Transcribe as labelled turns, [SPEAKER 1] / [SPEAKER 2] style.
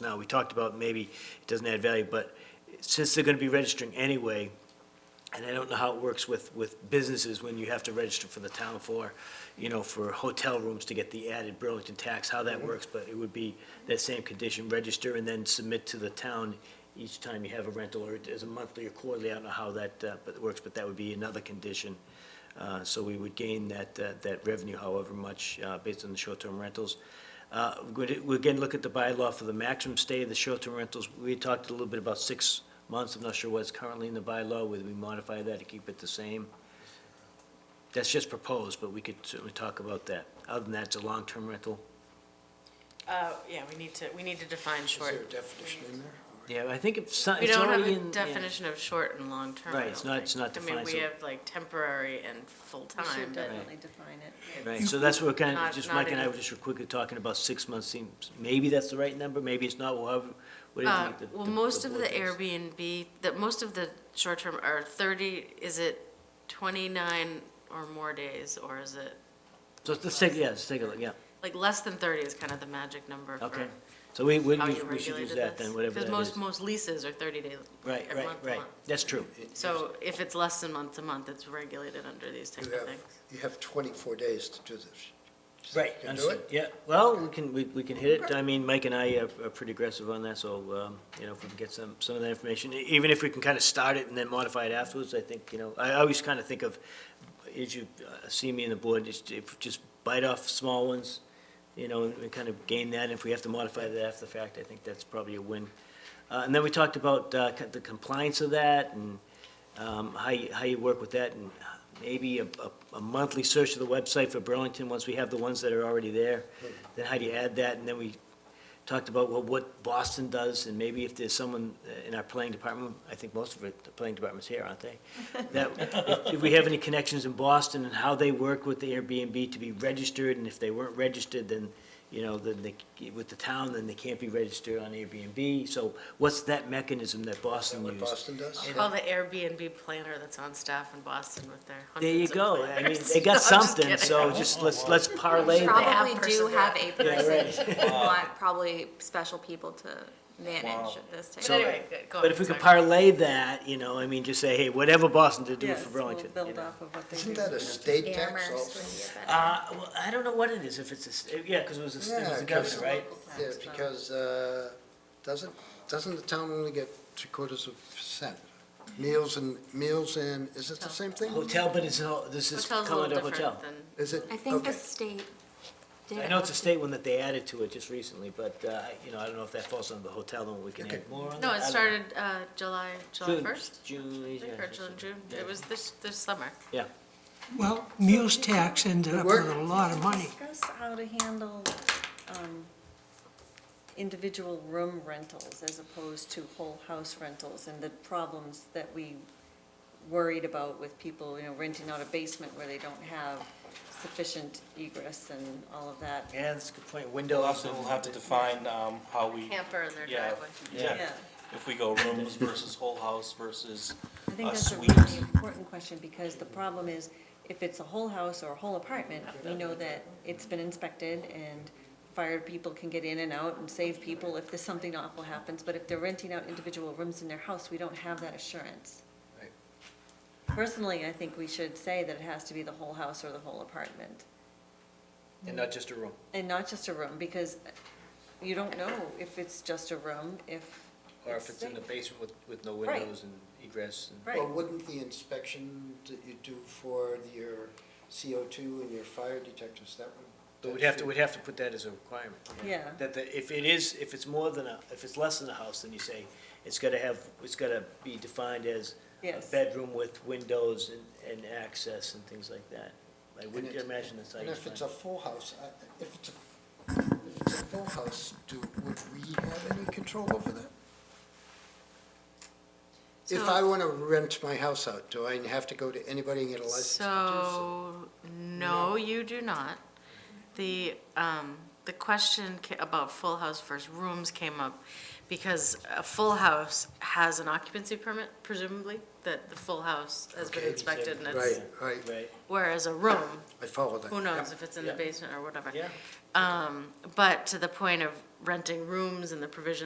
[SPEAKER 1] Now, we talked about maybe it doesn't add value, but since they're gonna be registering anyway, and I don't know how it works with, with businesses when you have to register for the town for, you know, for hotel rooms to get the added Burlington tax, how that works, but it would be that same condition, register and then submit to the town each time you have a rental, or as a monthly or quarterly, I don't know how that, uh, but it works, but that would be another condition. Uh, so we would gain that, uh, that revenue however much, uh, based on the short-term rentals. Uh, We'd we'd again look at the bylaw for the maximum stay of the short-term rentals. We talked a little bit about six months. I'm not sure what's currently in the bylaw, whether we modify that to keep it the same. That's just proposed, but we could certainly talk about that. Other than that, it's a long-term rental.
[SPEAKER 2] Uh, yeah, we need to, we need to define
[SPEAKER 3] Is there a
[SPEAKER 2] short.
[SPEAKER 3] definition in there?
[SPEAKER 1] Yeah, I think it's, so-
[SPEAKER 2] We
[SPEAKER 1] it's
[SPEAKER 2] don't have
[SPEAKER 1] already
[SPEAKER 2] a
[SPEAKER 1] in. yeah.
[SPEAKER 2] definition of short and long-term. I
[SPEAKER 1] Right, it's
[SPEAKER 2] don't
[SPEAKER 1] not- it's
[SPEAKER 2] think.
[SPEAKER 1] not
[SPEAKER 2] I mean,
[SPEAKER 1] defined,
[SPEAKER 2] we
[SPEAKER 1] so-
[SPEAKER 2] have like temporary and
[SPEAKER 4] We
[SPEAKER 2] full-time,
[SPEAKER 4] should
[SPEAKER 2] but
[SPEAKER 4] definitely define it.
[SPEAKER 1] Right, so that's what we're kind of,
[SPEAKER 2] Not-
[SPEAKER 1] just
[SPEAKER 2] not
[SPEAKER 1] Mike and I
[SPEAKER 2] any-
[SPEAKER 1] were just quickly talking about six months seems, maybe that's the right number, maybe it's not, whatever,
[SPEAKER 2] Uh,
[SPEAKER 1] whatever. the-
[SPEAKER 2] Well,
[SPEAKER 1] the-
[SPEAKER 2] most of
[SPEAKER 1] board
[SPEAKER 2] the
[SPEAKER 1] thinks.
[SPEAKER 2] Airbnb, that, most of the short-term are 30, is it 29 or more days, or is it,
[SPEAKER 1] So let's take, yeah, let's take a look, yeah,
[SPEAKER 2] like, less than 30 is kind of the magic number
[SPEAKER 1] okay.
[SPEAKER 2] for
[SPEAKER 1] So we, we
[SPEAKER 2] how
[SPEAKER 1] we
[SPEAKER 2] you
[SPEAKER 1] should use
[SPEAKER 2] regulated
[SPEAKER 1] that
[SPEAKER 2] this.
[SPEAKER 1] then, whatever that is.
[SPEAKER 2] Because most, most leases are 30 days,
[SPEAKER 1] Right,
[SPEAKER 2] every
[SPEAKER 1] right,
[SPEAKER 2] month to
[SPEAKER 1] right.
[SPEAKER 2] month.
[SPEAKER 1] That's true.
[SPEAKER 2] So if it's less than month to month, it's regulated under these type
[SPEAKER 3] You
[SPEAKER 2] of
[SPEAKER 3] have,
[SPEAKER 2] things.
[SPEAKER 3] you have 24 days to do this.
[SPEAKER 1] Right.
[SPEAKER 3] You can do
[SPEAKER 1] understood.
[SPEAKER 3] it?
[SPEAKER 1] Yeah, well, we can, we, we can hit it. I mean, Mike and I are, are pretty aggressive on that, so, um, you know, if we can get some, some of that information, e- even if we can kind of start it and then modify it afterwards, I think, you know, I always kind of think of, as you uh, see me in the board, just, if, just bite off small ones, you know, and, and kind of gain that. If we have to modify that after the fact, I think that's probably a win. Uh, and then we talked about, uh, co- the compliance of that and, um, how you, how you work with that, and maybe a, a- a monthly search of the website for Burlington, once we have the ones that are already there, then how do you add that, and then we talked about, well, what Boston does, and maybe if there's someone uh, in our planning department, I think most of it, the planning department's here, aren't they? That, if- if we have any connections in Boston, and how they work with the Airbnb to be registered, and if they weren't registered, then, you know, then they, with the town, then they can't be registered on Airbnb, so what's that mechanism that
[SPEAKER 3] Is that
[SPEAKER 1] Boston
[SPEAKER 3] what
[SPEAKER 1] used?
[SPEAKER 3] Boston does?
[SPEAKER 2] Call the Airbnb planner that's on staff in Boston with their
[SPEAKER 1] There you
[SPEAKER 2] hundreds of
[SPEAKER 1] go. I mean,
[SPEAKER 2] planners.
[SPEAKER 1] they
[SPEAKER 2] No,
[SPEAKER 1] got
[SPEAKER 2] I'm just
[SPEAKER 1] something,
[SPEAKER 2] kidding.
[SPEAKER 1] so just let's, let's parlay that.
[SPEAKER 2] app
[SPEAKER 5] Probably do
[SPEAKER 2] person
[SPEAKER 5] have a
[SPEAKER 1] right.
[SPEAKER 5] person, who want probably special people to manage this type
[SPEAKER 2] But
[SPEAKER 5] of.
[SPEAKER 2] anyway, good, go
[SPEAKER 1] But
[SPEAKER 2] on,
[SPEAKER 1] if we could
[SPEAKER 2] sorry.
[SPEAKER 1] parlay that, you know, I mean, just say, hey, whatever Boston did, do it
[SPEAKER 4] Yes,
[SPEAKER 1] for
[SPEAKER 4] we'll
[SPEAKER 1] Burlington. you
[SPEAKER 4] build
[SPEAKER 1] know.
[SPEAKER 4] off of what they do.
[SPEAKER 3] Isn't that a state tax also?
[SPEAKER 1] Uh, well, I don't know what it is, if it's a, st- yeah, because it was a, st- it
[SPEAKER 3] Yeah,
[SPEAKER 1] was a
[SPEAKER 3] 'cause-
[SPEAKER 1] governor, right?
[SPEAKER 3] Yeah, because, uh, doesn't, doesn't the town only get three quarters of a percent? Meals and, meals and, is it the same thing?
[SPEAKER 1] Hotel, but it's, all- this is
[SPEAKER 2] Hotel's a little
[SPEAKER 1] Commodore Hotel.
[SPEAKER 2] different than,
[SPEAKER 3] Is it?
[SPEAKER 5] I think the
[SPEAKER 3] okay.
[SPEAKER 5] state did.
[SPEAKER 1] I know it's a state one that they added to it just recently, but, uh, you know, I don't know if that falls under the hotel, then we can
[SPEAKER 3] Okay.
[SPEAKER 1] add more on that.
[SPEAKER 2] no,
[SPEAKER 1] I
[SPEAKER 2] it
[SPEAKER 1] don't
[SPEAKER 2] started uh, July,
[SPEAKER 1] know.
[SPEAKER 2] July
[SPEAKER 1] June-
[SPEAKER 2] 1st?
[SPEAKER 1] June,
[SPEAKER 2] I think, Or
[SPEAKER 1] yeah.
[SPEAKER 2] June, June,
[SPEAKER 1] Yeah.
[SPEAKER 2] it was this, this summer.
[SPEAKER 1] Yeah,
[SPEAKER 6] Well, meals tax ended up with a lot of money.
[SPEAKER 4] Discuss how to handle um, individual room rentals as opposed to whole house rentals and the problems that we worried about with people, you know, renting out a basement where they don't have sufficient egress and all of that.
[SPEAKER 1] yeah, that's a good point.
[SPEAKER 7] We'll
[SPEAKER 1] Window
[SPEAKER 7] have to,
[SPEAKER 1] also.
[SPEAKER 7] we'll have to define, um, how we,
[SPEAKER 2] Camper in their
[SPEAKER 7] Yeah.
[SPEAKER 2] driveway.
[SPEAKER 7] yeah, if we go rooms versus whole house versus,
[SPEAKER 4] I think
[SPEAKER 7] a
[SPEAKER 4] that's a
[SPEAKER 7] suite.
[SPEAKER 4] really important question, because the problem is, if it's a whole house or a whole apartment, we know that it's been inspected and fire people can get in and out and save people if there's something awful happens, but if they're renting out individual rooms in their house, we don't have that assurance.
[SPEAKER 3] Right.
[SPEAKER 4] Personally, I think we should say that it has to be the whole house or the whole apartment,
[SPEAKER 1] And not just a room.
[SPEAKER 4] and not just a room, because you don't know if it's just a room, if.
[SPEAKER 1] Or if it's in the
[SPEAKER 4] safe.
[SPEAKER 1] basement with, with no
[SPEAKER 4] Right.
[SPEAKER 1] windows and egress and.
[SPEAKER 4] Right.
[SPEAKER 3] Well, wouldn't the inspection that you do for your CO2 and your fire detectors, that would?
[SPEAKER 1] But we'd have to, we'd have to put that as a requirement.
[SPEAKER 4] Yeah.
[SPEAKER 1] That, the if it is, if it's more than a, if it's less than a house, then you say, it's gotta have, it's gotta be defined as a
[SPEAKER 4] Yes.
[SPEAKER 1] bedroom with windows and, and access and things like that. I wouldn't
[SPEAKER 3] it-
[SPEAKER 1] imagine that's how
[SPEAKER 3] And
[SPEAKER 1] you
[SPEAKER 3] if it's a
[SPEAKER 1] define.
[SPEAKER 3] full house, I- if it's a, if it's a full house, do, would we have any control over that? If
[SPEAKER 2] So-
[SPEAKER 3] I want to rent my house out, do I have to go to anybody and get a license to do so?
[SPEAKER 2] So, no, you do not. The, um, the question ca- about full house versus rooms came up because a full house has an occupancy permit presumably, that the full house has been
[SPEAKER 3] Okay,
[SPEAKER 2] inspected and it's,
[SPEAKER 3] Right, right,
[SPEAKER 1] Right,
[SPEAKER 2] whereas a room,
[SPEAKER 3] I follow that.
[SPEAKER 2] who knows if it's in the
[SPEAKER 1] Yeah.
[SPEAKER 2] basement or whatever.
[SPEAKER 1] yeah.
[SPEAKER 2] Um, but to the point of renting rooms and the provision